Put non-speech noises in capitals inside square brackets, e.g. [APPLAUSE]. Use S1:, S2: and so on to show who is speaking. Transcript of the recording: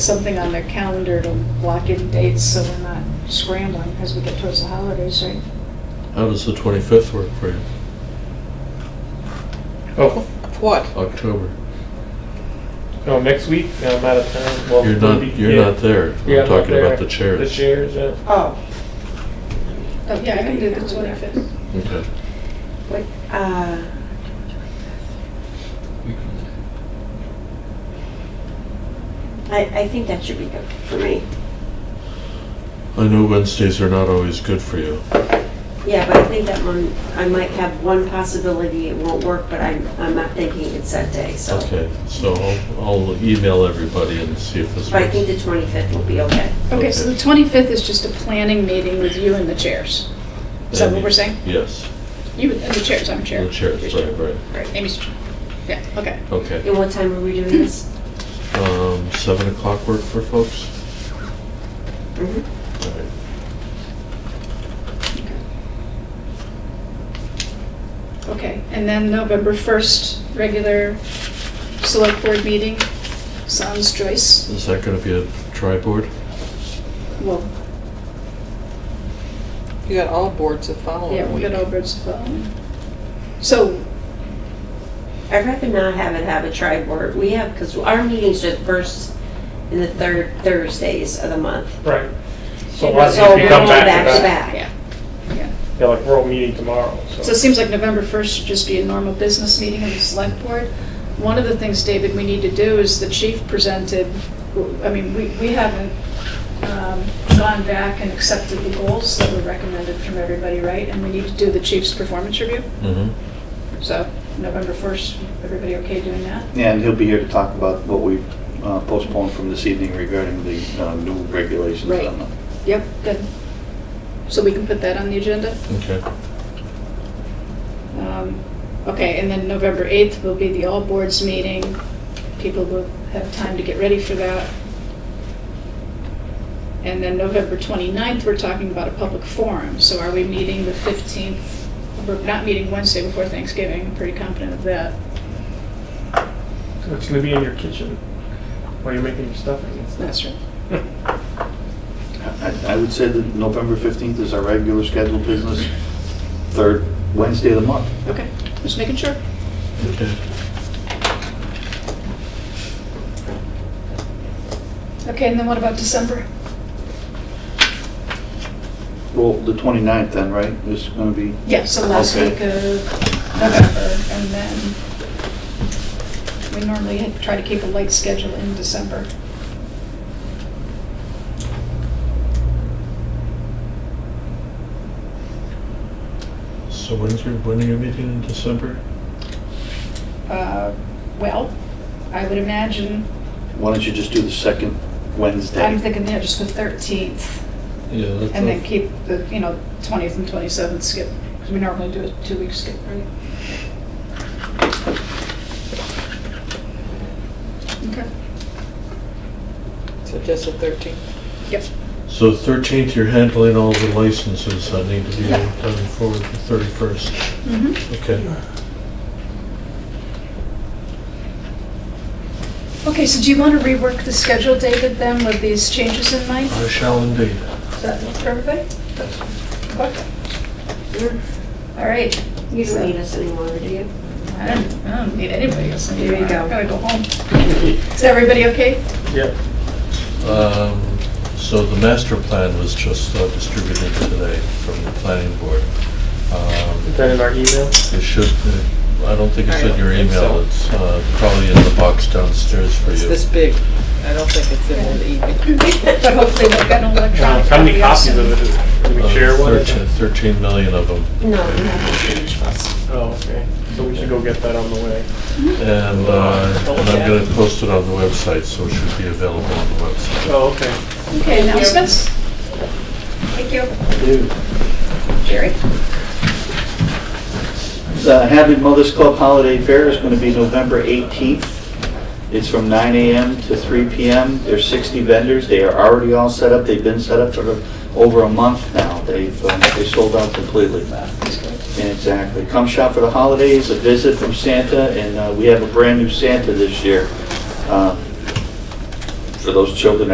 S1: something on their calendar to block in dates so we're not scrambling as we get towards the holidays, right?
S2: How does the 25th work for you,
S3: Oh,
S4: What?
S2: October?
S3: no, next week, no, I'm out of town. Well,
S2: You're not,
S3: maybe-
S2: you're
S3: yeah.
S2: not there.
S3: Yeah,
S2: We're
S3: I'm not
S2: talking about
S3: there.
S2: the chairs.
S3: The chairs, yeah.
S5: Oh,
S1: But Oh, yeah, I can do the 25th.
S2: Okay.
S5: what, uh, I, I think that should be good for me.
S2: I know Wednesdays are not always good for you.
S5: Yeah, but I think that one, I might have one possibility it won't work, but I'm, I'm not thinking it's that day, so.
S2: Okay, so I'll- I'll email everybody and see if this
S5: But I think the
S2: works.
S5: 25th will be okay.
S1: Okay, so the 25th is just a planning meeting with you and the chairs. Is that what we're saying?
S2: Yes,
S1: You and the chairs, I'm chair.
S2: the chairs,
S1: You're
S2: right, right,
S1: chair. Right, Amy's, chair. yeah, okay.
S2: okay.
S5: And what time are we doing this?
S2: Um, 7 o'clock work for folks?
S5: Mhm.
S1: Mm-hmm.
S2: All right.
S1: Okay, and then November 1st, regular select board meeting, sans Joyce.
S2: Is that gonna be a tri-board?
S1: Well,
S4: You got all boards to follow.
S1: yeah, we got over its phone. So,
S5: I'd rather not have it have a tri board. We have, because our meetings are the first and the third Thursdays of the month.
S3: Right. So
S1: So
S3: a lot of
S5: So
S3: people
S5: we're
S3: come
S5: all
S3: back
S5: back
S3: to
S5: to
S3: back.
S5: back.
S1: yeah, yeah.
S3: Yeah, like we're all meeting tomorrow,
S1: So it seems like November 1st should just be a normal business meeting of the select board. One of the things, David, we need to do is the chief presented, I mean, we we haven't um, gone back and accepted the goals that were recommended from everybody, right? And we need to do the chief's performance review.
S2: Mm-hmm.
S1: So November 1st, everybody okay doing that?
S6: And he'll be here to talk about what we uh, postponed from this evening regarding the uh, new regulations. Um,
S1: Right.
S6: on the-
S1: Yep. Good. So we can put that on the agenda?
S2: Okay.
S1: Um, Okay, and then November 8th will be the all boards meeting. People will have time to get ready for that. And then November 29th, we're talking about a public forum. So are we meeting the 15th? We're not meeting Wednesday before Thanksgiving, I'm pretty confident of that.
S3: So it's gonna be in your kitchen while you're making your stuffing and stuff.
S1: That's right.
S6: I I would say that November 15th is our regular scheduled business, third Wednesday of the month.
S1: Okay, just making sure.
S2: Okay.
S1: Okay, and then what about December?
S6: Well, the 29th then, right, is going to be,
S1: Yeah, so last
S6: Okay.
S1: week of November, and then we normally try to keep a light schedule in December.
S2: So when's your, when are you meeting in December?
S1: Uh, Well, I would imagine,
S6: why don't you just do the second Wednesday?
S1: I'm thinking, yeah, just the 13th,
S2: Yeah, that's.
S1: and then keep the, you know, 20th and 27th skip, because we normally do a two-week skip, right? Okay,
S4: So just the 13th.
S1: yep,
S2: So 13th, you're handling all the licenses that need to be
S1: Yeah.
S2: done forward the 31st.
S1: mhm.
S2: Okay.
S1: Okay, so do you want to rework the schedule, David, then, with these changes in mind?
S2: I shall indeed.
S1: Does that work for everybody? Okay. All right.
S5: You don't need us anymore, do you?
S1: I don't, I don't need anybody else.
S5: There you go.
S1: I'm gonna go home. Is everybody okay?
S3: Yeah,
S2: Um, So the master plan was just uh, distributed today from the planning board. Um,
S3: is that in our email?
S2: It should, uh, I don't think it's
S4: I
S2: in your
S4: don't think
S2: email,
S4: so.
S2: it's uh, probably in the box downstairs for
S4: It's
S2: you.
S4: this big. I don't think it's in the evening.
S1: [LAUGHS] But hopefully they've got an
S3: Wow,
S1: electronic.
S3: How many
S1: copy also.
S3: copies of it? Can we
S2: Uh,
S3: share one?
S2: 13 13 million of them.
S5: No, we haven't finished us.
S3: Oh, okay. So we should go get that on the way.
S2: And uh, and I'm
S4: Okay.
S2: going to post it on the website, so it should be available on the website.
S3: Oh, okay.
S1: Okay, announcements?
S5: Thank you.
S1: Jerry?
S6: The Hadley Mothers Club Holiday Fair is going to be November 18th. It's from 9 AM to 3 PM. There's 60 vendors. They are already all set up. They've been set up for over a month now. They've, um, they sold out completely. Exactly. Come shop for the holidays, a visit from Santa, and uh, we have a brand-new Santa this year. Uh, for those children